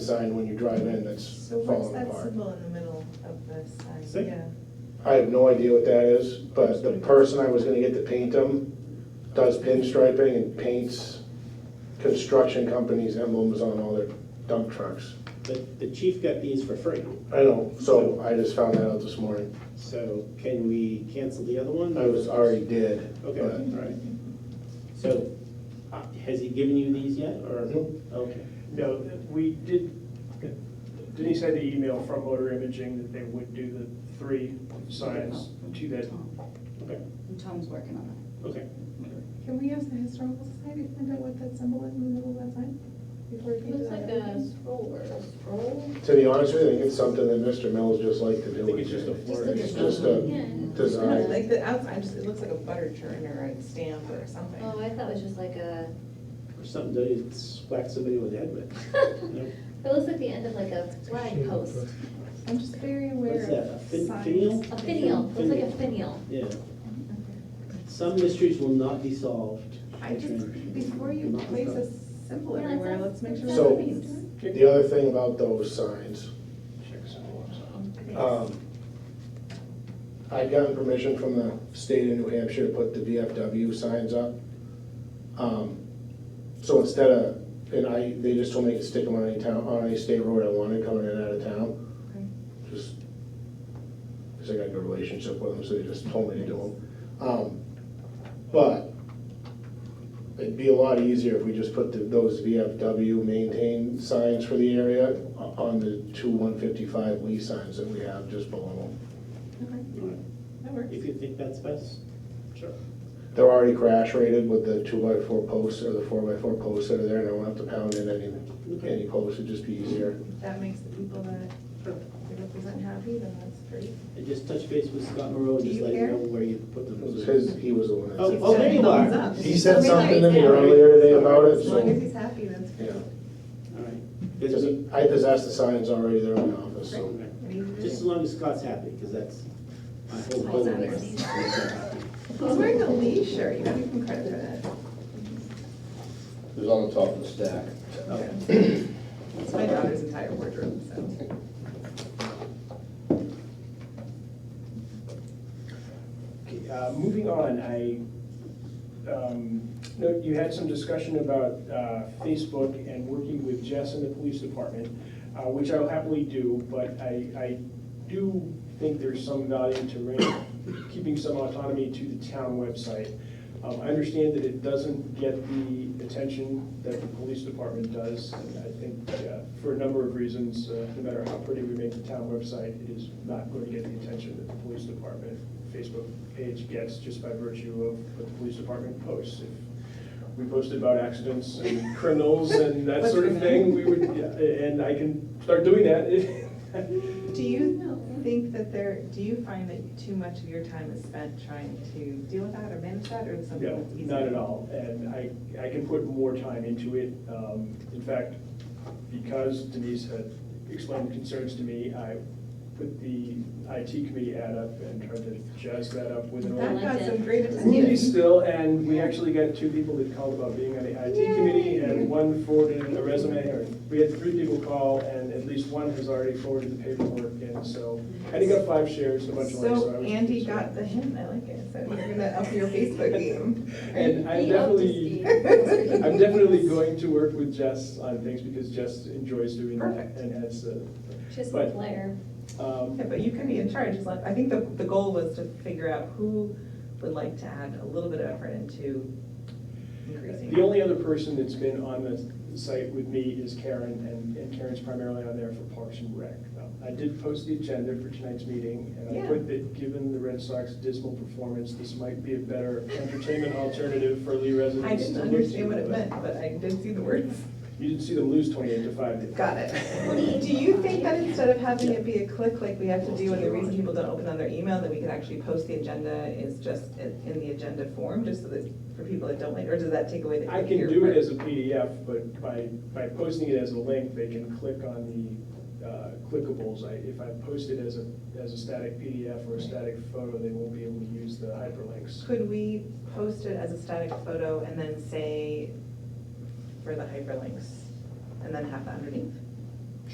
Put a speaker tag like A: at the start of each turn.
A: design when you drive in that's
B: So what's
A: falling
B: that
A: apart.
B: symbol in the middle of the sign?
C: See?
B: Yeah.
A: I have no idea what that is, but the person I was gonna get to paint them does pinstriping and paints construction companies' emblems on all their dump trucks.
C: But the chief got these for free,
A: I know, so I just found that out this morning.
C: so can we cancel the other one?
A: I was already dead.
C: Okay, all
A: but-
C: right. So, uh, has he given you these yet, or?
A: Nope.
C: Okay.
D: No, we did, Denise had the email from Motor Imaging that they would do the three signs to that.
E: Tom.
C: Okay,
E: Tom's working on it.
C: okay.
B: Can we ask the historical society to find out what that symbol is in the middle of that sign? Before we
F: It
B: can do
F: looks like
B: that.
F: a scroll or a scroll.
A: To be honest with you, I think it's something that Mr. Mills just liked to do.
C: I think it's just a
A: It's
C: floor.
A: It's just a
F: Yeah.
B: No,
A: design.
B: Like the outside, just, it looks like a butter churn or a stamp or something.
F: Oh, I thought it was just like a,
C: Or something to whack somebody with the head with. Nope.
F: it looks like the end of like a flag post,
B: I'm just very aware
C: What's that, a
B: of
C: fin-
B: signs.
C: finial?
F: a finial, looks like a finial.
C: Yeah. Some mysteries will not be solved.
B: I just, before you
C: Not
B: place a
C: solved.
B: symbol
F: Yeah,
B: everywhere, let's
F: that's-
B: make sure.
F: that's
A: So-
B: what
F: what
B: it's
F: he's doing.
A: The other thing about those signs, um, I'd gotten permission from the state of New Hampshire to put the VFW signs up. Um, So instead of, and I, they just told me I could stick them on any town, on any state road I wanted coming in and out of town. Just, because I got a good relationship with them, so they just told me to do them. Um, But it'd be a lot easier if we just put the- those VFW maintain signs for the area o- on the two 155 Lee signs that we have just below them.
B: Okay,
C: All right.
B: That works.
C: If you think that's best, sure.
A: They're already crash rated with the two by four posts or the four by four posts that are there, and I won't have to pound in any, any posts, it'd just be easier.
B: If that makes the people that they represent happy, then that's great.
C: And just touch base with Scott Moreau, and
B: Do
C: just
B: you
C: let him
B: care?
C: know where you put
A: It
C: them.
A: was his, he was the one that
C: Oh,
A: said.
C: oh, there you are.
B: Thumbs up.
A: He said something to me earlier today about it,
B: As long as
A: so,
B: he's happy, that's
A: yeah.
B: great.
C: All right.
A: Because
C: Just-
A: I possess the signs already, they're in the office, so.
C: okay.
B: What do you do?
C: Just as long as Scott's happy, because that's my whole
B: Scott's
C: goal.
B: happy.
C: is to make him happy.
B: He's wearing a Lee shirt, you gotta give him credit for that.
G: It was on the top of the stack.
B: It's my daughter's entire wardrobe, so.
D: Okay, uh, Moving on, I, um, no, you had some discussion about uh, Facebook and working with Jess and the police department, uh, which I will happily do, but I, I do think there's some value to re- keeping some autonomy to the town website. Um, I understand that it doesn't get the attention that the police department does, and I think uh, for a number of reasons, uh, no matter how pretty we make the town website, it is not going to get the attention that the police department Facebook page gets just by virtue of what the police department posts. If we posted about accidents and criminals and that
B: What's
D: sort of
B: your name?
D: thing, we would, yeah, and I can start doing that.
B: Do you think that there, do you find that too much of your time is spent trying to deal with that or manage that, or is something
D: No,
B: that's easier?
D: not at all, and I, I can put more time into it. Um, In fact, because Denise had explained concerns to me, I put the IT committee ad up and tried to jazz that up with an
B: That
D: old
B: got some great
D: movie
B: attention.
D: still, and we actually got two people that called about being on the IT committee,
B: Yay.
D: and one forwarded a resume, or we had three people call, and at least one has already forwarded the paperwork in, so, and he got five shares, a bunch of likes.
B: So
D: I was-
B: Andy got the hint, I like it, so you're gonna up your Facebook game.
D: And I'm
F: He upped his
D: definitely.
F: game.
D: I'm definitely going to work with Jess on things because Jess enjoys doing that
B: Perfect.
D: and has, uh,
F: Just a
D: But-
F: player.
D: um,
B: Yeah, but you can be in charge, as long- I think the, the goal was to figure out who would like to add a little bit of effort into increasing.
D: the only other person that's been on the site with me is Karen, and and Karen's primarily on there for Parks and Rec. Um, I did post the agenda for tonight's meeting, and I
B: Yeah.
D: put that, given the Red Sox dismal performance, this might be a better entertainment alternative for Lee residents.
B: I
D: to
B: didn't
D: look
B: understand
D: to,
B: what it meant,
D: but
B: but I did see the words.
D: You didn't see them lose twenty-eight to five. did you?
B: Got it. Do you think that instead of having it be a click like we have to do, and the reason people don't open on their email, that we could actually post the agenda is just in in the agenda form, just so that, for people that don't like, or does that take away the?
D: I can
B: your-
D: do it as a PDF, but by, by posting it as a link, they can click on the uh, clickables. I- If I post it as a, as a static PDF or a static photo, they won't be able to use the hyperlinks.
B: Could we post it as a static photo and then say for the hyperlinks, and then have that underneath?